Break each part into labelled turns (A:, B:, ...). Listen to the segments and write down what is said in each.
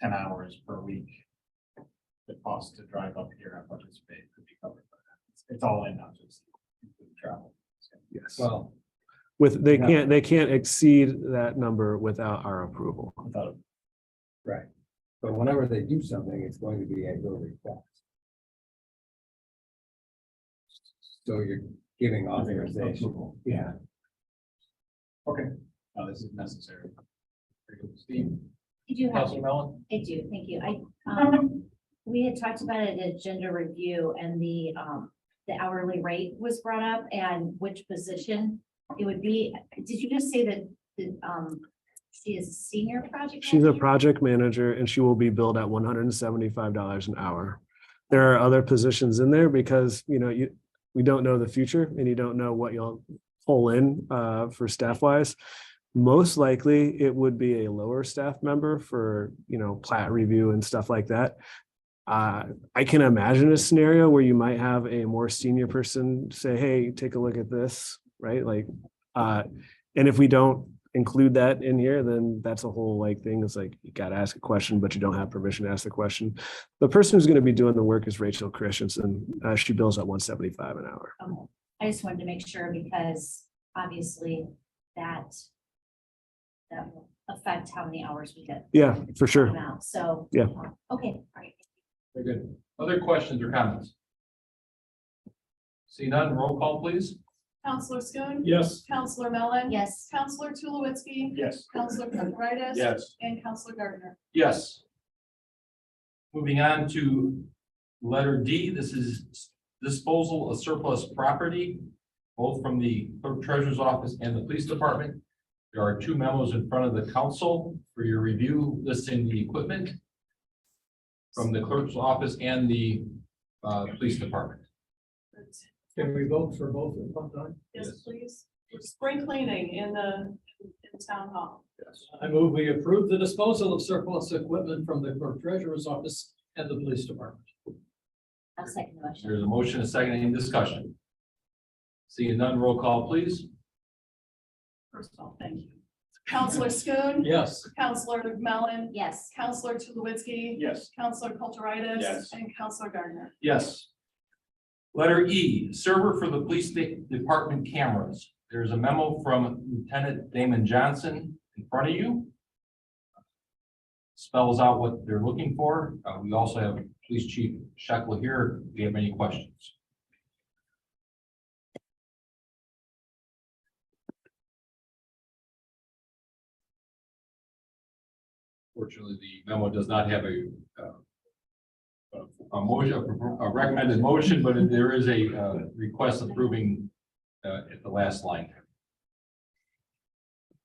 A: ten hours per week. The cost to drive up here and participate could be covered by that. It's- It's all in, not just including travel.
B: Yes,
A: Well,
B: with, they
A: Yeah.
B: can't, they can't exceed that number without our approval.
A: without,
C: Right. But whenever they do something, it's going to be a building tax. So you're giving authorization.
A: Approval.
C: Yeah.
A: okay, now this is necessary. Very good. Steve,
D: I do have,
A: Councilor Mellon?
D: I do, thank you. I, um, we had talked about it at gender review and the, um, the hourly rate was brought up and which position it would be. Did you just say that, that, um, she is senior project?
B: She's a
D: manager?
B: project manager and she will be billed at one hundred and seventy-five dollars an hour. There are other positions in there because, you know, you, we don't know the future and you don't know what you'll pull in uh for staff wise. Most likely, it would be a lower staff member for, you know, plat review and stuff like that. Uh, I can imagine a scenario where you might have a more senior person say, hey, take a look at this, right? Like, uh, and if we don't include that in here, then that's a whole like thing. It's like, you gotta ask a question, but you don't have permission to ask the question. The person who's gonna be doing the work is Rachel Christensen. Uh, she bills at one seventy-five an hour.
D: Okay. I just wanted to make sure because obviously that, that will affect how many hours we get.
B: Yeah, for
D: come
B: sure.
D: out. So. um,
B: Yeah.
D: Okay, all right.
A: Very good. Other questions or comments? See none, roll call, please.
E: Counselor Schoen.
A: Yes.
E: Counselor Mellon.
D: Yes,
E: Counselor Tulowitzki.
A: Yes.
E: Counselor Kulturitis.
A: Yes.
E: And Counselor Gardner.
A: Yes. Moving on to letter D, this is disposal of surplus property, both from the clerk treasurer's office and the police department. There are two memos in front of the council for your review listing the equipment from the clerk's office and the uh, police department.
C: Can we vote for both at one time?
E: Yes,
A: Yes.
E: please. Spring cleaning in the, in town hall.
A: Yes.
F: I move we approve the disposal of surplus equipment from the clerk treasurer's office and the police department.
D: I'll second the motion.
A: There's a motion, a second, any discussion? Seeing none, roll call, please.
E: First of all, thank you. Counselor Schoen.
F: Yes,
E: Counselor Mellon.
D: Yes,
E: Counselor Tulowitzki.
A: Yes.
E: Counselor Kulturitis.
A: Yes.
E: And Counselor Gardner.
A: Yes. Letter E, server for the police de- department cameras. There's a memo from Lieutenant Damon Johnson in front of you. Spells out what they're looking for. Uh, we also have Police Chief Sheckler here. Do you have any questions? Fortunately, the memo does not have a, uh, a motion, a recommended motion, but there is a uh, request approving uh, at the last line.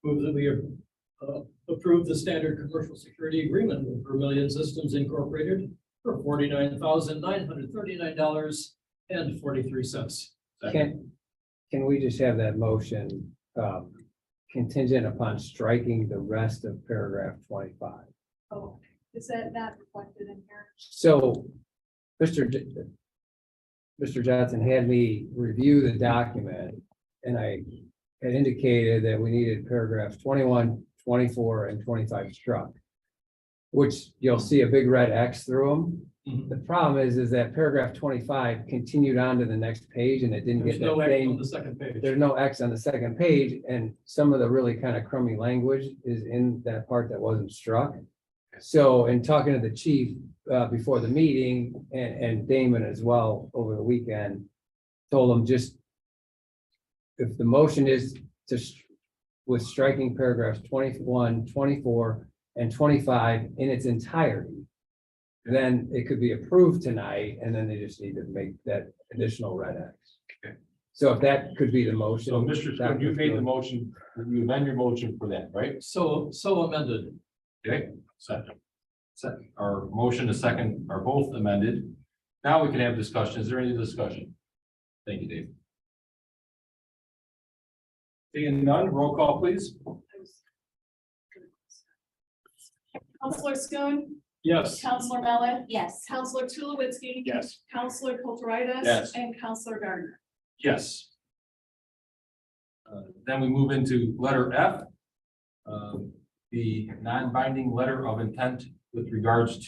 F: move that we uh, approve the standard commercial security agreement with Vermillion Systems Incorporated for forty-nine thousand nine hundred thirty-nine dollars and forty-three cents.
C: Can, can we just have that motion um, contingent upon striking the rest of paragraph twenty-five?
E: Oh, is that not reflected in here?
C: So, Mr. J- Mr. Johnson had me review the document, and I had indicated that we needed paragraphs 21, 24, and twenty-five struck. Which you'll see a big red X through them.
F: Mhm.
C: The problem is, is that paragraph twenty-five continued on to the next page and it didn't
F: There's
C: get
F: no
C: that
F: act on
C: same.
F: the second page.
C: There's no X on the second page, and some of the really kind of crummy language is in that part that wasn't struck. So in talking to the chief uh before the meeting and and Damon as well over the weekend, told him just. If the motion is to s- with striking paragraphs 21, 24, and twenty-five in its entirety. Then it could be approved tonight, and then they just need to make that additional red X.
A: Okay.
C: So if that could be the motion.
A: So, Mr. Spoon,
C: that
A: you
C: would
A: made
C: be-
A: the motion, you amend your motion for that, right?
F: So, so amended.
A: Okay, second. Second, our motion, a second, are both amended. Now we can have discussion. Is there any discussion? Thank you, Dave. Seeing none, roll call, please.
E: Counselor Schoen.
F: Yes,
E: Counselor Mellon.
D: yes.
E: Counselor Tulowitzki.
A: Yes.
E: Counselor Kulturitis.
A: Yes.
E: And Counselor Gardner.
A: Yes. Uh, Then we move into Uh, letter F. um, The non-binding letter of intent with regards